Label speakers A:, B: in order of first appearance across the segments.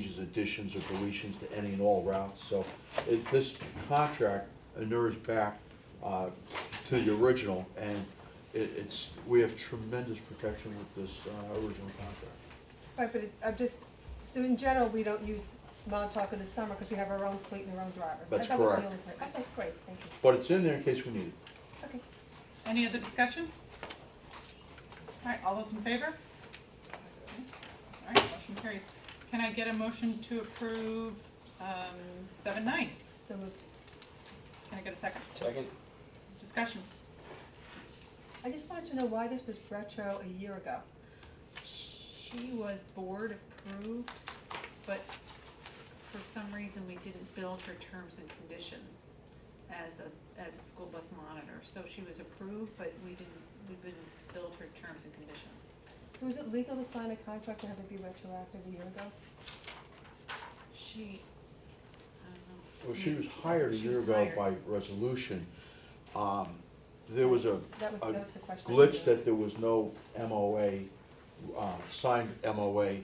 A: changes, additions, or deletions to any and all routes. So it, this contract inures back, uh, to the original, and it, it's, we have tremendous protection with this, uh, original contract.
B: Right, but it, I'm just, so in general, we don't use Montauk in the summer because we have our own fleet and our own drivers.
A: That's
B: That was the
A: correct.
B: only thing. Okay, great, thank you.
A: But it's in there in case we need it.
B: Okay.
C: Any other discussion? All right, all those in favor? All right, motion carries. Can I get a motion to approve um, seven nine?
B: So moved.
C: Can I get a second?
D: Second?
C: Discussion.
B: I just wanted to know why this was retro a year ago.
E: She was board approved, but for some reason, we didn't build her terms and conditions as a, as a school bus monitor. So she was approved, but we didn't, we didn't build her terms and conditions.
B: So is it legal to sign a contract and have it be retroactive a year ago?
E: She, I don't know.
A: Well, she was hired a
E: She
A: year
E: was
A: ago
E: hired.
A: by resolution. Um, There was a
B: That was,
A: a
B: that was the question. I
A: glitch
B: had.
A: that there was no MOA, uh, signed MOA.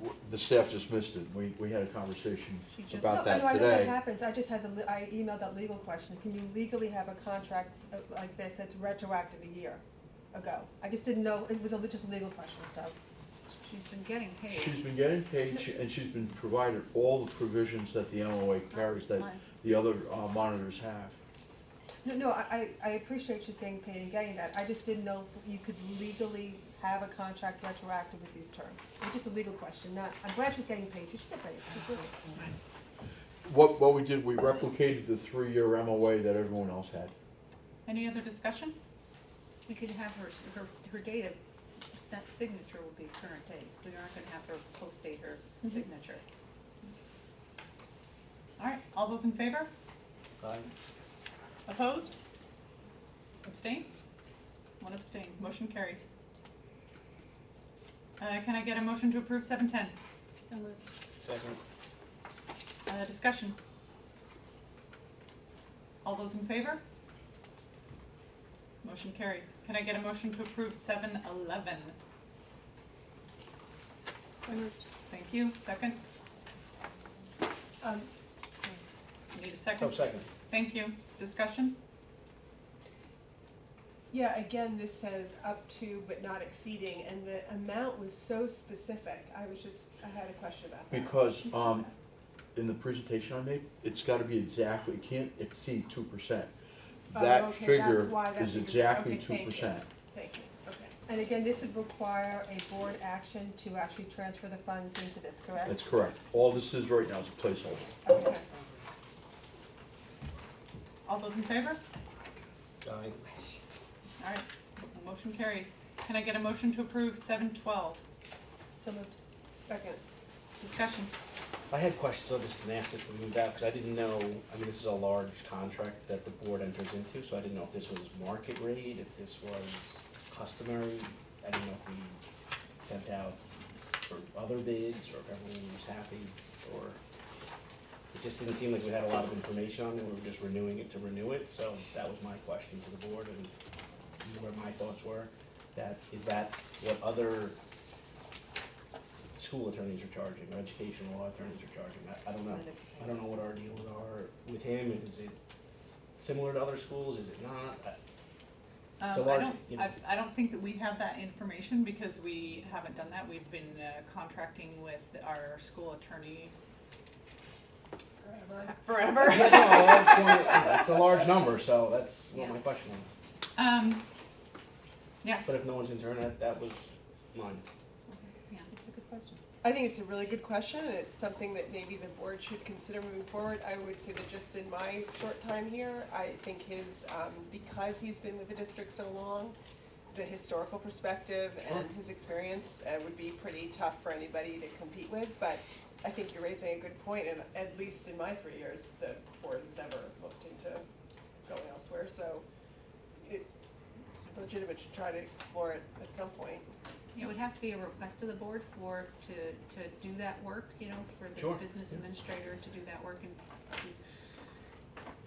A: W- The staff just missed it. We, we had a conversation
E: She just- Oh,
A: about
B: No, I know-
A: that
B: I know that
A: today.
B: happens, I just had the, le- I emailed that legal question, can you legally have a contract uh, like this that's retroactive a year ago? I just didn't know, it was a, le- just a legal question, so,
E: She's been getting paid.
A: She's been getting paid she- and she's been provided all the provisions that the MOA carries that
E: Mine.
A: the other uh, monitors have.
B: no, no, I, I I appreciate she's getting paid and getting that, I just didn't know if you could legally have a contract retroactive with these terms. It's just a legal question, not, I'm glad she's getting paid, she should get paid, She's worth it.
A: What, what we did, we replicated the three-year MOA that everyone else had.
C: Any other discussion?
E: We could have her, her, her date of sen- signature would be current date. We aren't gonna have her post date her
B: Mhm.
E: signature.
C: Mm-hmm. All right, all those in favor?
D: Aye.
C: Opposed? Abstain? One abstain. Motion carries. Uh, Can I get a motion to approve seven ten?
E: So moved.
D: Second?
C: Uh, discussion. All those in favor? Motion carries. Can I get a motion to approve seven eleven?
E: So moved.
C: Thank you. Second?
B: Um,
C: Need a second?
D: Oh, second.
C: Thank you. Discussion?
F: Yeah, again, this says up to but not exceeding, and the amount was so specific, I was just, I had a question about that.
A: Because, um, in the presentation I made, it's gotta be exactly, it can't exceed two percent.
F: Oh,
A: That
F: okay,
A: figure
F: that's why that
A: is
F: figure's-
A: exactly
F: okay,
A: two
F: thank you.
A: percent.
F: Thank you, okay.
B: And again, this would require a board action to actually transfer the funds into this, correct?
A: That's correct. All this is right now is a placeholder.
F: Okay.
C: All those in favor?
D: Aye.
C: All right. Motion carries. Can I get a motion to approve seven twelve?
B: So moved.
F: Second,
C: Discussion.
D: I had questions, so this and asked this to move out, because I didn't know, I mean, this is a large contract that the board enters into, so I didn't know if this was market rate, if this was customary. I didn't know if we sent out for other bids, or if everyone was happy, or, it just didn't seem like we had a lot of information on it, we were just renewing it to renew it, so that was my question to the board, and where my thoughts were, that, is that what other school attorneys are charging, or educational law attorneys are charging, I, I don't know. I don't know what our deals are with him, is it similar to other schools, is it not? I-
C: Um,
D: So
C: I
D: large,
C: don't,
D: you know.
C: I, I don't think that we have that information because we haven't done that. We've been uh, contracting with our school attorney
F: forever.
C: forever.
D: Yeah, no, that's one- That's a large number, so that's what my
E: Yeah.
D: question was,
C: Um,
D: but if no one's in turn, that, that was mine.
E: Yeah.
B: That's a good question.
F: I think it's a really good question, and it's something that maybe the board should consider moving forward. I would say that just in my short time here, I think his, um, because he's been with the district so long, the historical perspective and his experience uh, would be pretty tough for anybody to compete with, but I think you're raising a good point, and at least in my three years, the board has never looked into going elsewhere, so it, it's legitimate to try to explore it at some point.
E: It would have to be a request to the board for, to, to do that work, you know, for
D: Sure.
E: the business administrator to do that work and to-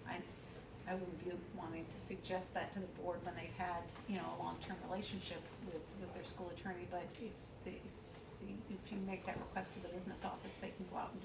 E: I, I would be wanting to suggest that to the board when they've had, you know, a long-term relationship with, with their school attorney, but if the, if the, if you make that request to the business office, they can go out and do